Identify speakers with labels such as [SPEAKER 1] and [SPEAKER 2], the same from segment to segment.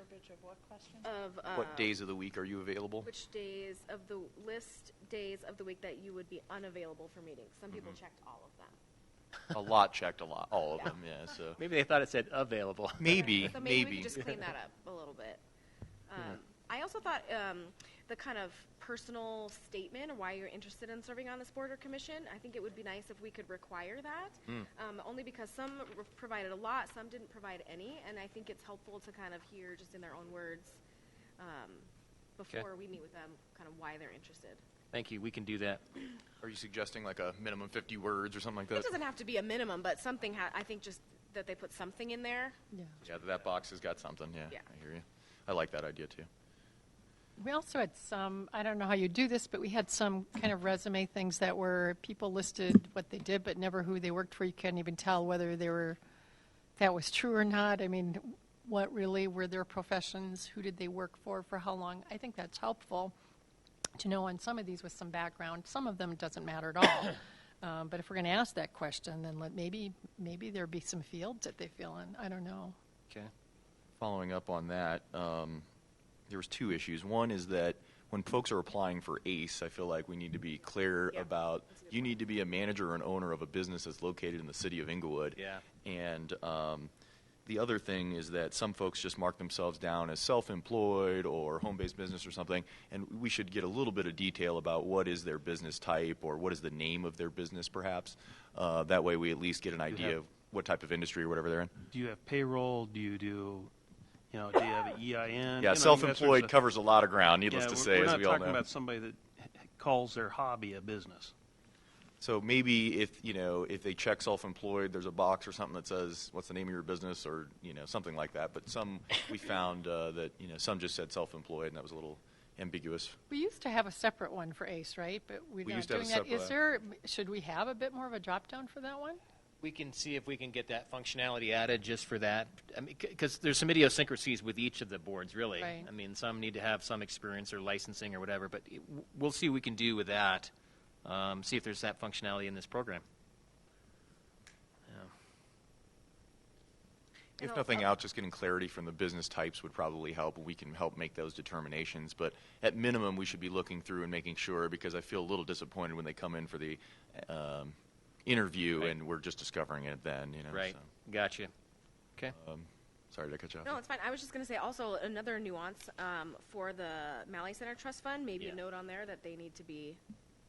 [SPEAKER 1] of what question?
[SPEAKER 2] of.
[SPEAKER 3] What
[SPEAKER 2] um,
[SPEAKER 3] days of the week are you available?
[SPEAKER 2] Which days of the, list days of the week that you would be unavailable for meetings. Some people
[SPEAKER 3] Mm-hmm.
[SPEAKER 2] checked all of them.
[SPEAKER 3] A lot checked, a lot, all of
[SPEAKER 2] Yeah.
[SPEAKER 3] them, yeah, so.
[SPEAKER 4] Maybe they thought it said available.
[SPEAKER 3] Maybe,
[SPEAKER 2] So maybe we
[SPEAKER 3] maybe.
[SPEAKER 2] could just clean that up a little bit. Um, I also thought um, the kind of personal statement of why you're interested in serving on this board or commission, I think it would be nice if we could require that.
[SPEAKER 3] Mm.
[SPEAKER 2] Um, Only because some re- provided a lot, some didn't provide any, and I think it's helpful to kind of hear just in their own words um, before we meet with them, kind of why they're interested.
[SPEAKER 4] Thank you, we can do that.
[SPEAKER 3] Are you suggesting like a minimum 50 words or something like
[SPEAKER 2] It
[SPEAKER 3] that?
[SPEAKER 2] doesn't have to be a minimum, but something, ha- I think just that they put something in there.
[SPEAKER 5] Yeah.
[SPEAKER 3] Yeah, that box has got something, yeah.
[SPEAKER 2] Yeah.
[SPEAKER 3] I hear you. I like that idea, too.
[SPEAKER 5] We also had some, I don't know how you do this, but we had some kind of resume things that were people listed what they did, but never who they worked for. You couldn't even tell whether they were, that was true or not. I mean, what really were their professions? Who did they work for? For how long? I think that's helpful to know on some of these with some background. Some of them doesn't matter at all. um, but if we're going to ask that question, then let, maybe maybe there be some fields that they fill in. I don't know.
[SPEAKER 4] Okay.
[SPEAKER 3] Following up on that, um, there was two issues. One is that when folks are applying for ACE, I feel like we need to be clear
[SPEAKER 2] Yeah,
[SPEAKER 3] about
[SPEAKER 2] that's a good
[SPEAKER 3] you need to be a manager or an owner of a business that's located in the city of Inglewood.
[SPEAKER 4] Yeah.
[SPEAKER 3] And um, the other thing is that some folks just mark themselves down as self-employed or home-based business or something, and we should get a little bit of detail about what is their business type or what is the name of their business, perhaps. Uh, that way, we at least get an idea
[SPEAKER 6] have-
[SPEAKER 3] of what type of industry or whatever they're in.
[SPEAKER 6] Do you have payroll? Do you do, you know, do you have an EIN? You know,
[SPEAKER 3] Yeah,
[SPEAKER 6] that sort of
[SPEAKER 3] self-employed
[SPEAKER 6] stuff.
[SPEAKER 3] covers a lot of ground,
[SPEAKER 6] Yeah,
[SPEAKER 3] needless to
[SPEAKER 6] we're-
[SPEAKER 3] say,
[SPEAKER 6] we're
[SPEAKER 3] as
[SPEAKER 6] not
[SPEAKER 3] we all
[SPEAKER 6] talking
[SPEAKER 3] know.
[SPEAKER 6] about somebody that h- calls their hobby a business.
[SPEAKER 3] So maybe if you know if they check self-employed, there's a box or something that says what's the name of your business or you know something like that. But some we found uh, that you know some just said self-employed, and that was a little ambiguous.
[SPEAKER 5] We used to have a separate one for ACE, right? But we're
[SPEAKER 3] We
[SPEAKER 5] not
[SPEAKER 3] used to have
[SPEAKER 5] doing
[SPEAKER 3] a
[SPEAKER 5] that. Is
[SPEAKER 3] separate-
[SPEAKER 5] there, should we have a bit more of a drop down for that one?
[SPEAKER 4] We can see if we can get that functionality added just for that. I mean, because there's some idiosyncrasies with each of the boards, really.
[SPEAKER 5] Right.
[SPEAKER 4] I mean, some need to have some experience or licensing or whatever, but it- w- we'll see what we can do with that. Um, see if there's that functionality in this program.
[SPEAKER 2] And
[SPEAKER 3] If
[SPEAKER 2] I'll-
[SPEAKER 3] nothing
[SPEAKER 2] I'll-
[SPEAKER 3] else, just getting clarity from the business types would probably help. We can help make those determinations, but at minimum, we should be looking through and making sure because I feel a little disappointed when they come in for the um, interview
[SPEAKER 4] Right.
[SPEAKER 3] and we're just discovering it then. You know,
[SPEAKER 4] Right.
[SPEAKER 3] so-
[SPEAKER 4] Gotcha. Okay.
[SPEAKER 3] Sorry to cut you off.
[SPEAKER 2] No, it's fine. I was just going to say also another nuance um, for the Malley Center Trust Fund, maybe
[SPEAKER 4] Yeah.
[SPEAKER 2] a note on there that they need to be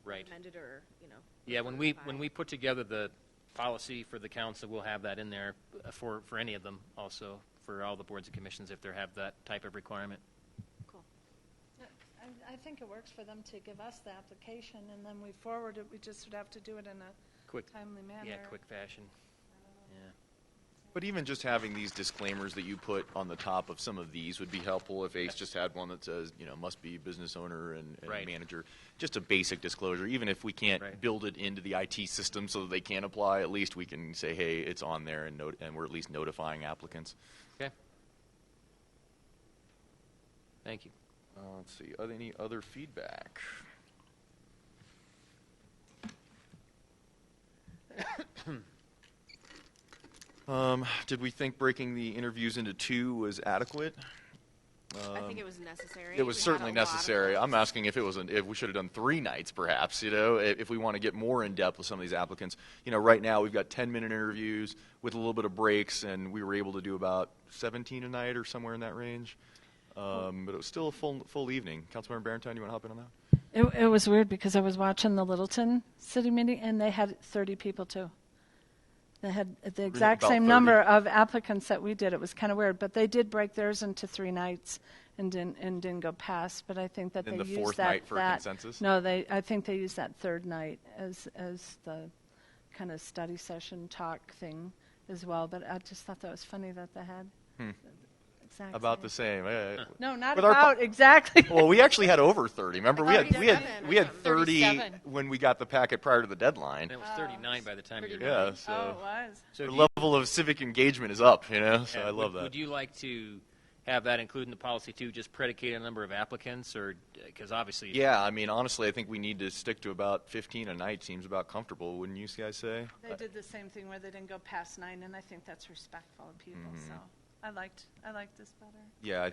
[SPEAKER 4] right.
[SPEAKER 2] amended or, you know.
[SPEAKER 4] Yeah, when we,
[SPEAKER 2] clarified.
[SPEAKER 4] when we put together the policy for the council, we'll have that in there uh, for, for any of them also, for all the boards and commissions if they have that type of requirement.
[SPEAKER 2] Cool.
[SPEAKER 1] I- I think it works for them to give us the application, and then we forward it, we just would have to do it in a
[SPEAKER 4] Quick,
[SPEAKER 1] timely manner.
[SPEAKER 4] yeah, quick fashion. Yeah.
[SPEAKER 3] But even just having these disclaimers that you put on the top of some of these would be helpful. If Ace just had one that says, you know, must be business owner and, and
[SPEAKER 4] Right.
[SPEAKER 3] manager, just a basic disclosure. Even if we can't
[SPEAKER 4] Right.
[SPEAKER 3] build it into the IT system so that they can apply, at least we can say, hey, it's on there, and not- and we're at least notifying applicants.
[SPEAKER 4] Okay. Thank you.
[SPEAKER 3] Uh, let's see. Are there any other feedback? um, did we think breaking the interviews into two was adequate?
[SPEAKER 2] I think it was necessary.
[SPEAKER 3] It was
[SPEAKER 2] We had
[SPEAKER 3] certainly
[SPEAKER 2] a lot of
[SPEAKER 3] necessary.
[SPEAKER 2] those.
[SPEAKER 3] I'm asking if it was an, if we should have done three nights, perhaps. You know, i- if we want to get more in depth with some of these applicants. You know, right now we've got 10 minute interviews with a little bit of breaks, and we were able to do about 17 a night or somewhere in that range. Um, but it was still a full full evening. Councilmember Barrington, you want to hop in on that?
[SPEAKER 1] It, it was weird because I was watching the Littleton city meeting and they had 30 people too. They had the exact
[SPEAKER 3] about
[SPEAKER 1] same
[SPEAKER 3] 30.
[SPEAKER 1] number of applicants that we did. It was kind of weird, but they did break theirs into three nights and didn't and didn't go past. But I think that
[SPEAKER 3] And
[SPEAKER 1] they
[SPEAKER 3] the
[SPEAKER 1] used
[SPEAKER 3] fourth
[SPEAKER 1] that,
[SPEAKER 3] night for a
[SPEAKER 1] that-
[SPEAKER 3] consensus?
[SPEAKER 1] No, they. I think they used that third night as as the kind of study session talk thing as well. But I just thought that was funny that they had exactly
[SPEAKER 3] Hmm. About the same. eh?
[SPEAKER 1] No, not
[SPEAKER 3] With our
[SPEAKER 1] about exactly.
[SPEAKER 3] Well, we actually had over 30. Remember, we
[SPEAKER 2] Like
[SPEAKER 3] had
[SPEAKER 2] 37
[SPEAKER 3] we had we
[SPEAKER 2] or
[SPEAKER 3] had
[SPEAKER 2] something.
[SPEAKER 3] 30
[SPEAKER 5] 37.
[SPEAKER 3] when we got the packet prior to the deadline.
[SPEAKER 4] And it was 39 by the time you're done.
[SPEAKER 3] Yeah,
[SPEAKER 1] oh, it
[SPEAKER 3] so
[SPEAKER 1] was.
[SPEAKER 4] So
[SPEAKER 3] the
[SPEAKER 4] do you-
[SPEAKER 3] level of civic engagement is up. You know, so
[SPEAKER 4] Yeah,
[SPEAKER 3] I
[SPEAKER 4] would-
[SPEAKER 3] love that.
[SPEAKER 4] Would you like to have that included in the policy too, just predicated on the number of applicants or, because obviously.
[SPEAKER 3] Yeah, I mean, honestly, I think we need to stick to about 15 a night. Seems about comfortable, wouldn't you guys say?
[SPEAKER 1] They did the same thing where they didn't go past nine, and I think that's respectful of people, so I liked, I liked this better.
[SPEAKER 3] Yeah, I